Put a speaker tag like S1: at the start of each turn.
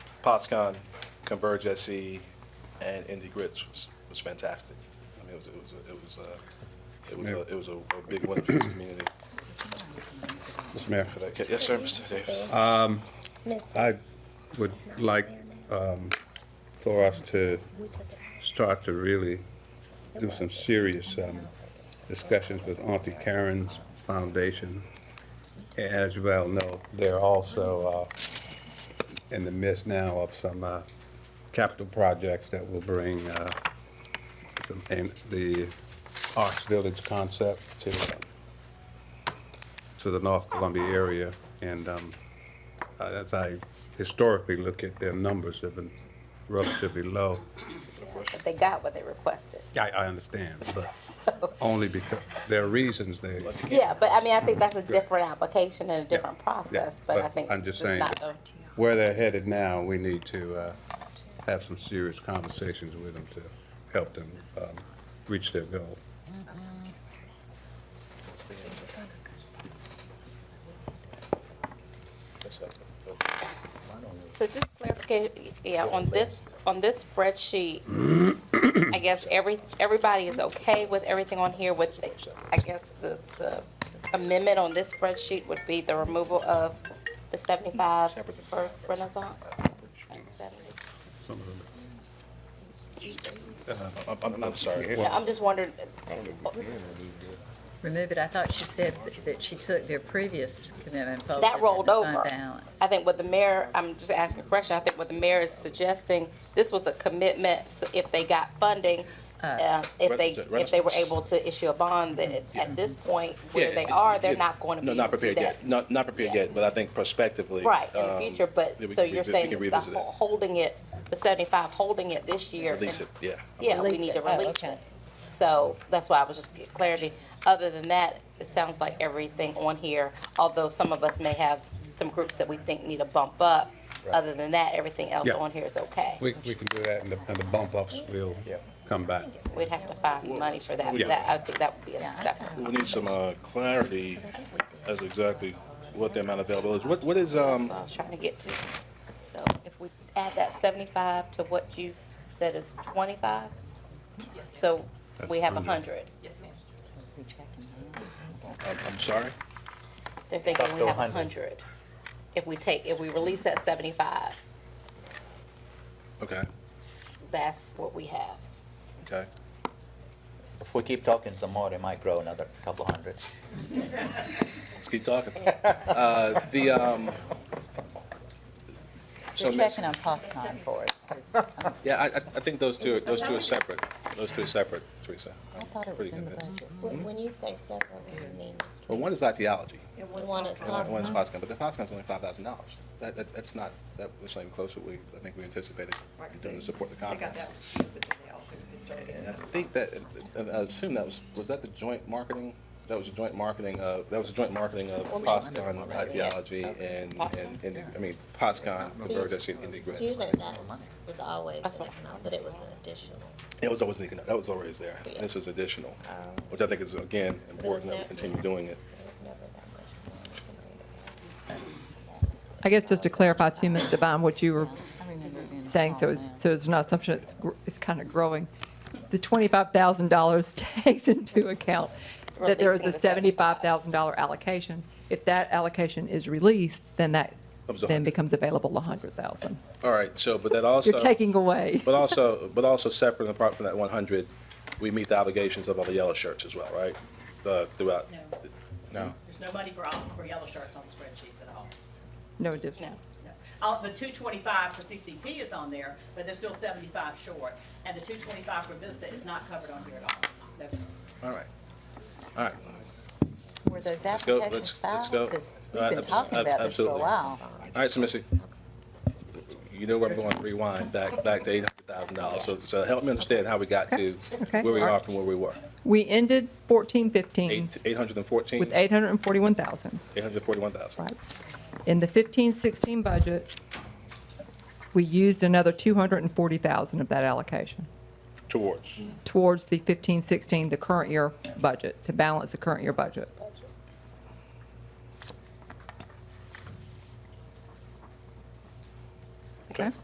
S1: POTSCon, Converge SE, and Indie Grits was, was fantastic. I mean, it was, it was, a- it was, a- it was, a- it was a a big win for the community.
S2: Mr. Mayor,
S1: for that ca- Yes, sir, Mr. Davis.
S2: I would like um, for us to start to really do some serious um, discussions with Auntie Karen's Foundation. As you well know, they're also uh, in the midst now of some uh, capital projects that will bring uh, some- and the Arts Village concept to, uh, to the North Columbia area. And um, uh, as I historically look at their numbers, they've been relatively low.
S3: They got what they requested.
S2: I, I understand, but
S3: So,
S2: only because there are reasons they,
S3: yeah, but I mean, I think that's a different application and a different process, but I
S2: but
S3: think
S2: I'm just
S3: it's
S2: saying
S3: not
S2: that-
S3: a-
S2: where they're headed now, we need to uh, have some serious conversations with them to help them um, reach their goal.
S3: So just clarification, yeah, on this, on this spreadsheet, I guess every, everybody is okay with everything on here with, I guess the, the amendment on this spreadsheet would be the removal of the seventy-five for Renaissance. and 70.
S2: Some of them.
S1: I'm, I'm, I'm sorry.
S3: Yeah, I'm just wondering,
S4: Remove it, I thought she said th- that she took their previous commitment. and folded it
S3: that
S4: in
S3: rolled
S4: the fund
S3: over.
S4: balance.
S3: I think what the mayor, I'm just asking a question, I think what the mayor is suggesting, this was a commitment, so if they got funding, uh, if they, if they were able to issue a bond, then at this point, where
S1: Yeah,
S3: they are, they're
S1: yeah.
S3: not going to be
S1: No,
S3: able
S1: not
S3: to do
S1: prepared yet.
S3: that.
S1: Not, not prepared
S3: Yeah.
S1: yet, but I think prospectively.
S3: Right, in the
S1: um,
S3: future,
S1: yeah,
S3: but,
S1: we
S3: so
S1: can-
S3: you're
S1: we
S3: saying
S1: can
S3: that the
S1: revisit
S3: whole-
S1: that.
S3: holding it, the seventy-five, holding it this year.
S1: Release
S3: and-
S1: it, yeah.
S3: Yeah, we
S4: Release
S3: need to
S4: it. Oh,
S3: release
S4: okay.
S3: it. So that's why I was just get clarity. Other than that, it sounds like everything on here, although some of us may have some groups that we think need a bump up. Other than that, everything else
S2: Yeah.
S3: on here is okay.
S2: We, we can do that, and the, and the bump ups will come back.
S3: We'd have to find money for that.
S2: Yeah.
S3: That, I think that would be a
S4: I
S3: separate.
S1: We need some, uh, clarity as to exactly what the amount available is. What, what is, um,
S3: what I was trying to get to. So if we add that seventy-five to what you said is twenty-five, so we have a hundred.
S1: I'm, I'm sorry?
S3: They're thinking we have a hundred. If we take, if we release that seventy-five,
S1: Okay,
S3: that's what we have.
S1: okay.
S5: If we keep talking some more, it might grow another couple hundred.
S1: Let's keep talking. Uh, the, um, so,
S4: We're
S1: Miss-
S4: checking on POSCON for us, 'cause I
S1: yeah, I, I I think those two, those two are separate. Those two are separate, Teresa. I'm
S4: thought it was
S1: pretty
S4: in the
S1: convinced.
S4: budget.
S6: When when you say several, you mean it's
S1: Well, one is ideology,
S6: one is
S1: and one is
S7: Uh-huh.
S1: FOSCAN,
S6: possible?
S1: but the FOSCAN's only five thousand dollars. That, that, that's not, that was not even close to what we, I think we anticipated,
S7: Right, 'cause
S1: doing to
S7: they-
S1: support the
S7: They got
S1: conference.
S7: that, one, but then they also inserted
S1: And I
S7: another.
S1: think that, and I assume that was, was that the joint marketing? That was a joint marketing of, that was a joint marketing of POSCON, ideology, and, and, and, I mean, POSCON, Converge, I see, and Indy Grants.
S6: Usually that was, was always an economic, but it was an additional.
S1: It was always leaking up. That was always there.
S6: Yeah.
S1: This is additional, which I think is, again, important that we continue doing it.
S6: It was never that much
S8: I guess just to clarify too, Ms. Devine, what you were
S4: I remember it being a
S8: saying, so,
S4: small
S8: it-
S4: amount.
S8: so it's not assumption, it's, gr- it's kind of growing. The $25,000 takes into account that there is a
S3: Releasing the $75,000.
S8: $75,000 allocation. If that allocation is released, then that
S1: Comes a
S8: then
S1: hundred.
S8: becomes available 100,000.
S1: All right, so, but that also.
S8: You're taking away.
S1: But also, but also separate and apart from that one hundred, we meet the obligations of all the yellow shirts as well, right? The, throughout.
S9: No.
S1: No.
S9: There's no money for all, for yellow shirts on the spreadsheets at all.
S8: No
S3: No.
S8: additional.
S9: No. Uh, the two twenty-five for CCP is on there, but they're still seventy-five short, and the two twenty-five for Vista is not covered on here at all. No, sir.
S1: All right. All right.
S4: Were those
S1: go,
S4: applications
S1: let's- let's
S4: filed?
S1: go.
S4: Because
S1: Uh,
S4: we've been
S1: abs-
S4: talking
S1: ab-
S4: about this for a
S1: absolutely.
S4: while.
S1: All right, so Missy, you know where I'm going, rewind back, back to eight hundred thousand dollars. So, so help me understand how we got to
S8: Okay.
S1: where we
S8: All
S1: are
S8: right.
S1: from where we were.
S8: We ended 1415
S1: Eight, eight hundred and fourteen?
S8: with 841,000.
S1: Eight hundred and forty-one thousand.
S8: Right. In the 15-16 budget, we used another 240,000 of that allocation
S1: Towards.
S8: Mm-hmm. towards the 15-16, the current year budget, to balance the current year budget.